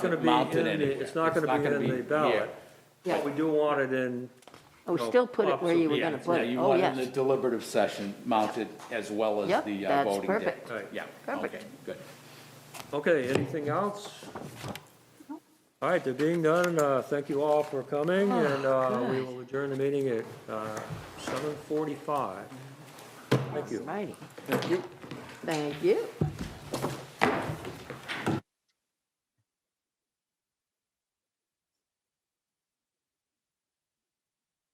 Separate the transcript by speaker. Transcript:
Speaker 1: gonna be
Speaker 2: mounted
Speaker 1: in the,
Speaker 2: anywhere.
Speaker 1: it's not gonna be in the
Speaker 2: here.
Speaker 1: ballot,
Speaker 3: Yeah.
Speaker 1: but we do want it in,
Speaker 3: Oh,
Speaker 1: No,
Speaker 3: still put it where you were
Speaker 1: absolutely,
Speaker 3: going to
Speaker 2: Yeah,
Speaker 3: put
Speaker 2: you
Speaker 3: it. Oh,
Speaker 2: want it in the
Speaker 3: yes.
Speaker 2: deliberative session mounted as well as
Speaker 3: Yep,
Speaker 2: the uh,
Speaker 3: that's
Speaker 2: voting day.
Speaker 3: perfect.
Speaker 1: Right.
Speaker 2: Yeah,
Speaker 3: Perfect.
Speaker 2: okay, good.
Speaker 1: okay, anything else? All right, there being none, uh, thank you all for coming, and, uh, we will adjourn the meeting at, uh, seven forty-five. Thank you.
Speaker 3: Alrighty. Thank you. Thank you.